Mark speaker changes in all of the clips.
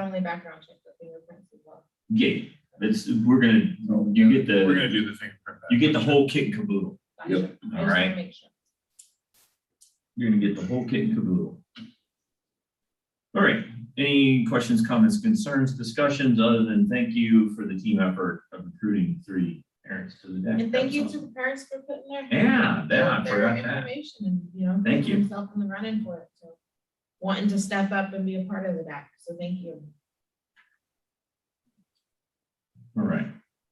Speaker 1: only background check the fingerprints as well.
Speaker 2: Yeah, that's, we're gonna, you get
Speaker 3: We're gonna
Speaker 2: the,
Speaker 3: do the thing.
Speaker 2: you get the whole kit and caboodle,
Speaker 1: Gotcha. I
Speaker 4: Yep.
Speaker 1: just
Speaker 2: all
Speaker 1: wanna
Speaker 2: right?
Speaker 1: make sure.
Speaker 2: You're gonna get the whole kit and caboodle. All right, any questions, comments, concerns, discussions, other than thank you for the team effort of recruiting three parents to the deck?
Speaker 1: And thank you
Speaker 2: That's
Speaker 1: to the
Speaker 2: awesome.
Speaker 1: parents for putting their.
Speaker 2: Yeah, that, I
Speaker 1: out there,
Speaker 2: forgot that.
Speaker 1: Information and, you know.
Speaker 2: Thank
Speaker 1: putting
Speaker 2: you.
Speaker 1: Themselves in the running for it, so wanting to step up and be a part of the DAC, so thank you.
Speaker 2: All right,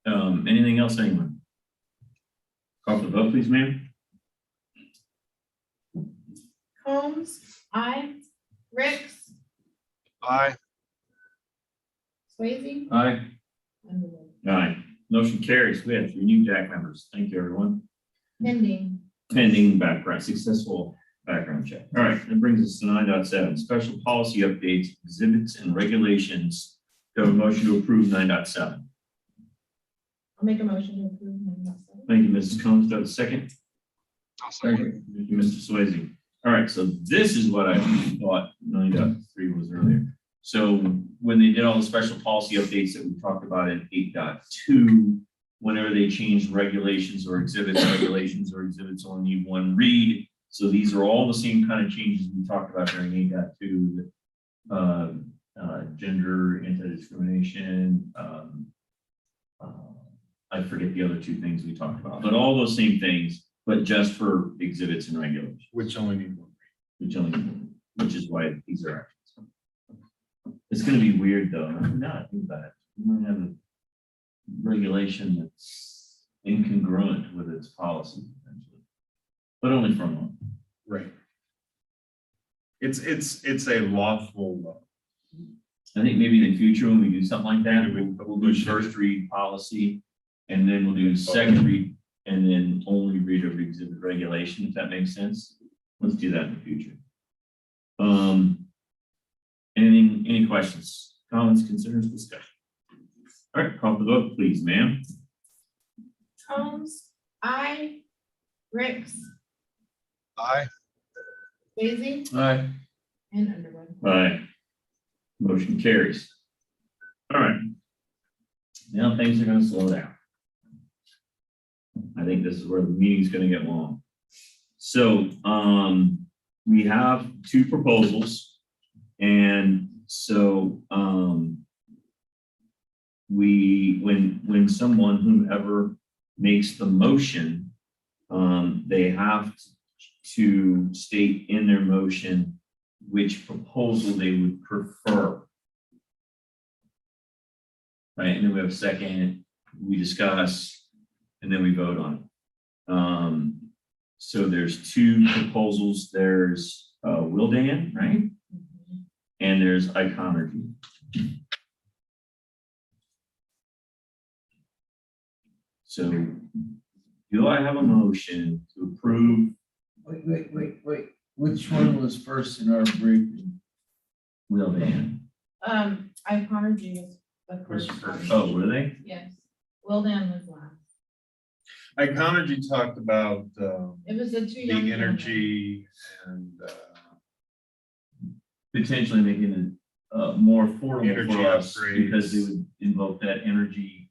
Speaker 2: um, anything else, anyone? Call for the vote, please, ma'am.
Speaker 1: Holmes, I, Ricks,
Speaker 3: Aye.
Speaker 1: Swayze.
Speaker 2: Aye.
Speaker 1: and Lewis.
Speaker 2: Aye, motion carries. We have three new DAC members. Thank you, everyone.
Speaker 1: Pending,
Speaker 2: pending background, successful background check. All right, that brings us to nine point seven. special policy updates, exhibits and regulations. Do I have a motion to approve nine point seven?
Speaker 1: I'll make a motion to approve nine dot seven.
Speaker 2: Thank you, Mrs. Combs. Do I have a second?
Speaker 3: I'll second.
Speaker 2: Thank you, Mr. Swayze. All right, so this is what I thought nine point three was earlier. So when they did all the special policy updates that we talked about in eight point two, whenever they changed regulations or exhibits, regulations or exhibits only need one read. So these are all the same kind of changes we talked about during eight dot two, the, uh, uh, gender anti-discrimination, um, uh, I forget the other two things we talked about, but all those same things, but just for exhibits and regulations,
Speaker 3: Which only need one.
Speaker 2: which only, which is why these are. actions. It's gonna be weird though, no, think about it, we might have a regulation that's incongruent with its policy. potentially, But only for a month.
Speaker 3: Right. It's, it's, it's a lawful,
Speaker 2: I think maybe in the future, when we do something like that,
Speaker 3: Maybe
Speaker 2: we'll,
Speaker 3: we-
Speaker 2: we'll do first read policy. And then we'll do second read and then only read of exhibit regulation, if that makes sense. Let's do that in the future. Um. Anything, any questions, comments, concerns, discussion? All right, call for the vote, please, ma'am.
Speaker 1: Holmes, I, Ricks,
Speaker 3: Aye.
Speaker 1: Swayze,
Speaker 3: Aye.
Speaker 1: and Underwood.
Speaker 2: Aye. Motion carries. All right. Now things are gonna slow down. I think this is where the meeting's gonna get long. So, um, we have two proposals. And so, um, we, when, when someone, whomever makes the motion, um, they have to state in their motion which proposal they would prefer. Right, and then we have a second, we discuss, and then we vote on it. Um, so there's two proposals, there's, uh, Wildan, right?
Speaker 1: Mm-hmm.
Speaker 2: And there's Iconergy. So do I have a motion to approve
Speaker 5: Wait, wait, wait, wait, which one was first in our briefing?
Speaker 2: Wildan?
Speaker 1: Um, I honored you as the
Speaker 3: Where's
Speaker 1: first.
Speaker 3: your first?
Speaker 1: one.
Speaker 2: Oh, were they?
Speaker 1: Yes, Will Dan was last.
Speaker 3: Iconergy talked about, um,
Speaker 1: It was the two
Speaker 3: the
Speaker 1: young. gentlemen.
Speaker 3: energy and, uh,
Speaker 2: potentially making it uh more affordable
Speaker 3: Energy
Speaker 2: for us
Speaker 3: upgrades.
Speaker 2: because it would invoke that energy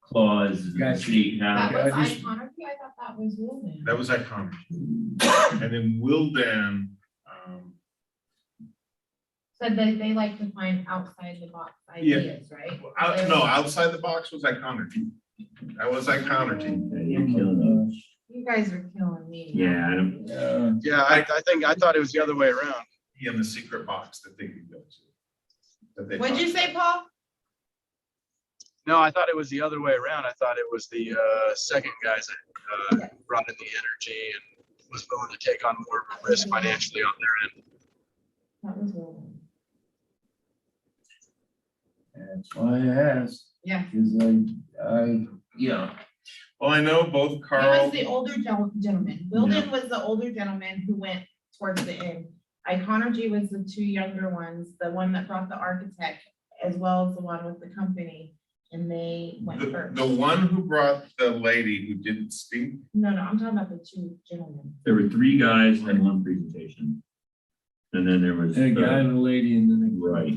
Speaker 2: clause that the
Speaker 5: Gotcha.
Speaker 2: state
Speaker 1: That
Speaker 2: now.
Speaker 1: was
Speaker 5: I
Speaker 1: I
Speaker 5: just-
Speaker 1: honored you, I thought that was Will Dan.
Speaker 3: that was Iconergy. And then Wildan, um,
Speaker 1: Said that they like to find outside the box
Speaker 3: Yeah.
Speaker 1: ideas, right?
Speaker 3: out, no, outside the box was Iconergy. That was Iconergy.
Speaker 2: You're killing us.
Speaker 1: You guys are killing me.
Speaker 2: Yeah, I don't-
Speaker 5: Yeah,
Speaker 4: Yeah, I, I think, I thought it was the other way around.
Speaker 3: He in the secret box that they could go to. that they
Speaker 1: What'd you
Speaker 3: talked
Speaker 1: say, Paul?
Speaker 4: No, I thought it was the other way around. I thought it was the uh, second guys that uh, brought in the energy and was willing to take on more of a risk financially on their end.
Speaker 1: That was Will Dan.
Speaker 5: that's why I asked,
Speaker 1: Yeah,
Speaker 5: because I, I, yeah.
Speaker 3: Well, I know both
Speaker 1: he
Speaker 3: Carl,
Speaker 1: was the older gen- gentleman. Will Dan was the older gentleman who went towards the end. Iconergy was the two younger ones, the one that brought the architect as well as the one with the company. And they went
Speaker 3: the,
Speaker 1: first.
Speaker 3: the one who brought the lady who didn't speak,
Speaker 1: No, no, I'm talking about the two gentlemen.
Speaker 2: there were three guys and one presentation. And then there was.
Speaker 5: And a guy
Speaker 2: uh,
Speaker 5: and a lady and then a.
Speaker 2: Right.